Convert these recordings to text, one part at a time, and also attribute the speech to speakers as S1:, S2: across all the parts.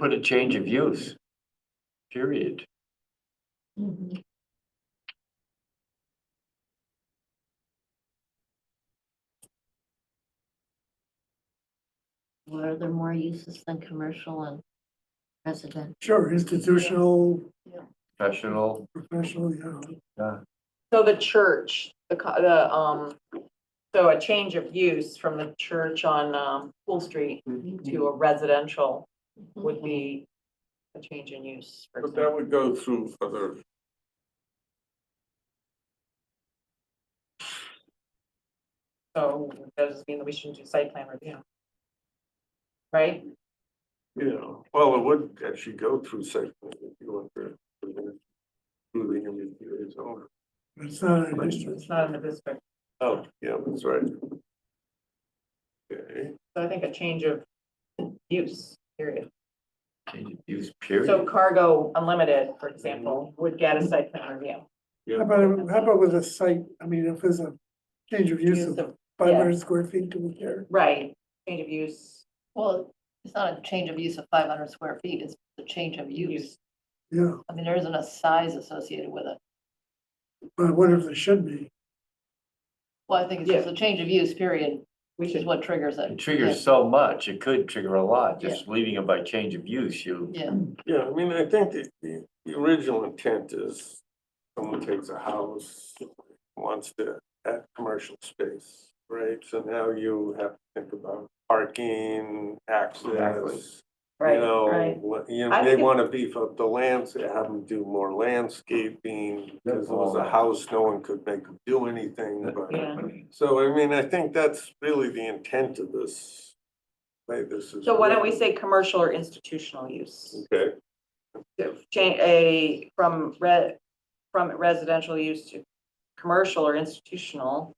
S1: Put a change of use. Period.
S2: What are there more uses than commercial and residential?
S3: Sure, institutional,
S1: Professional,
S3: professional, yeah.
S1: uh,
S4: So the church, the, co- the, um, so a change of use from the church on, um, Pool Street to a residential would be a change in use. for
S5: But
S4: example.
S5: that would go through other.
S4: So that does mean that we shouldn't do site plan review. Right?
S5: you know, well, it would actually go through section. if you want to- Through the interview is over.
S3: It's not a district.
S4: It's not in the district.
S5: Oh, yeah, that's right. Okay,
S4: So I think a change of use, period.
S1: change of use,
S4: So
S1: period.
S4: cargo unlimited, for example, would get a site plan review.
S3: How about, how about with a site, I mean, if there's a change of use of
S4: Use of,
S3: five hundred square feet to a care.
S4: right, change of use,
S2: Well, it's not a change of use of five hundred square feet, it's the change of use.
S4: use.
S3: Yeah,
S2: I mean, there isn't a size associated with it.
S3: but what if there should be?
S2: Well, I think it's just a change of use, period,
S4: We
S2: which is
S4: should,
S2: what triggers
S1: It
S2: it.
S1: triggers so much, it could trigger a lot, just leaving it by change of use, you.
S2: Yeah,
S5: yeah, I mean, I think the, the, the original intent is someone takes a house, wants to add commercial space, right? So now you have to think about parking, access. You
S4: right,
S5: know,
S4: right.
S5: what- you
S4: I
S5: know, they
S4: think-
S5: wanna beef up the lands, have them do more landscaping, because it was a
S1: Oh.
S5: house, no one could make them do anything, but.
S4: Yeah.
S5: So I mean, I think that's really the intent of this, way this is.
S4: So why don't we
S5: written.
S4: say commercial or institutional use?
S5: Okay,
S4: Change a, from re, from residential use to commercial or institutional.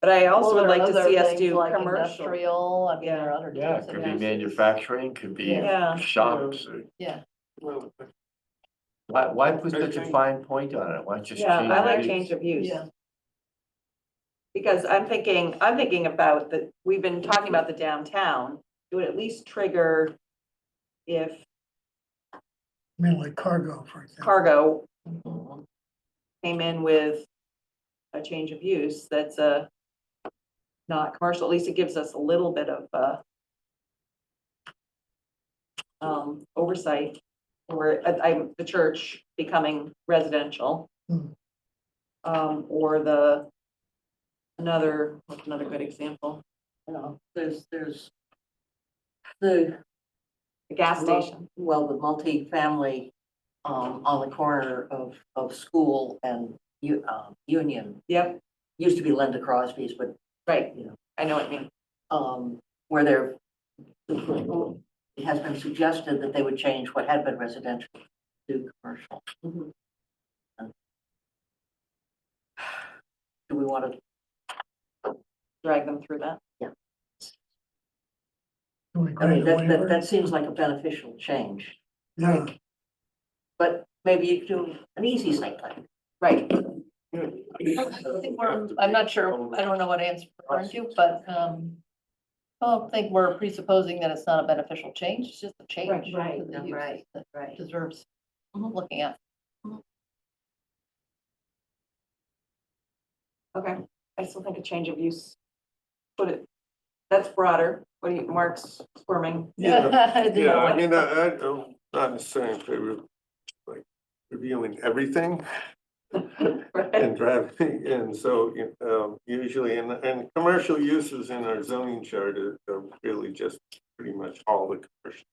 S4: But I also
S2: Well,
S4: would
S2: there are
S4: like to
S2: other
S4: see us
S2: things
S4: do
S2: like
S4: commercial.
S2: Industrial, I mean, there are other.
S1: Yeah,
S2: types
S1: it
S2: of
S1: could be
S2: uses.
S1: manufacturing, could be
S4: Yeah.
S1: shops. or-
S2: Yeah.
S5: well,
S1: Why, why put such a
S5: Okay.
S1: fine point on it? Why just change?
S4: Yeah, I like
S1: of use?
S4: change of use.
S2: Yeah.
S4: Because I'm thinking, I'm thinking about the, we've been talking about the downtown, it would at least trigger if
S3: I mean, like cargo, for example.
S4: cargo
S2: Mhm.
S4: came in with a change of use that's a not commercial, at least it gives us a little bit of, uh, um, oversight, or, I, I'm- the church becoming residential.
S3: Hmm.
S4: Um, or the, another, what's another good example?
S6: you know, there's, there's the,
S4: The gas
S6: Well-
S4: station,
S6: well, the multifamily um, on the corner of, of school and U, um, Union,
S4: yep,
S6: used to be Linda Crosby's, but,
S4: right,
S6: you know,
S4: I know what you mean,
S6: um, where there it has been suggested that they would change what had been residential to commercial.
S4: Mhm.
S6: And- Do we want to
S4: drag them through that.
S3: Can we
S6: I
S3: grant
S6: mean,
S3: a
S6: that, that,
S3: waiver?
S6: that seems like a beneficial change,
S3: Yeah,
S6: but maybe you could do an easy site plan.
S4: Right,
S2: I think we're- I'm not sure, I don't know what answer we're referring to, but, um, I don't think we're presupposing that it's not a beneficial change, it's just a change. to
S6: right,
S2: the
S6: no,
S2: use
S6: right,
S2: that
S6: right.
S2: Deserves looking at.
S4: okay, I still think a change of use, put it, that's broader, what do you, Mark's squirming.
S5: Yeah. Yeah,
S2: Yeah.
S5: I mean, I, I, I'm not necessarily in favor of, like, reviewing everything and driving, and so, you- um, usually, and, and commercial uses in our zoning chart are, are really just pretty much all the commercial.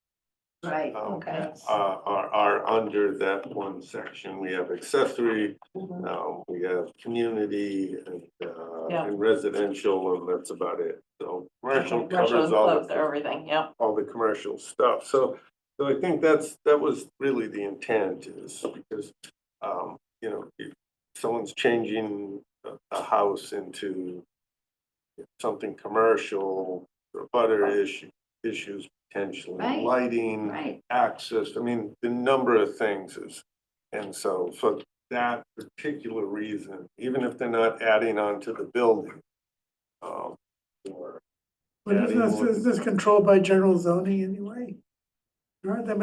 S2: Right,
S5: um,
S2: okay.
S5: Are, are, are under that one section, we have accessory,
S4: Mhm.
S5: um, we have community and, uh,
S4: Yeah.
S5: and residential, and that's about it. So commercial
S4: Commercial
S5: covers all the.
S4: enclosed, everything, yep.
S5: all the commercial stuff. So, so I think that's, that was really the intent is because, um, you know, if someone's changing a, a house into something commercial, or butter issue, issues potentially,
S2: Right,
S5: lighting,
S2: Right.
S5: access, I mean, the number of things is. And so for that particular reason, even if they're not adding on to the building, um, or
S3: but is this, is this controlled by general zoning anyway? There aren't that many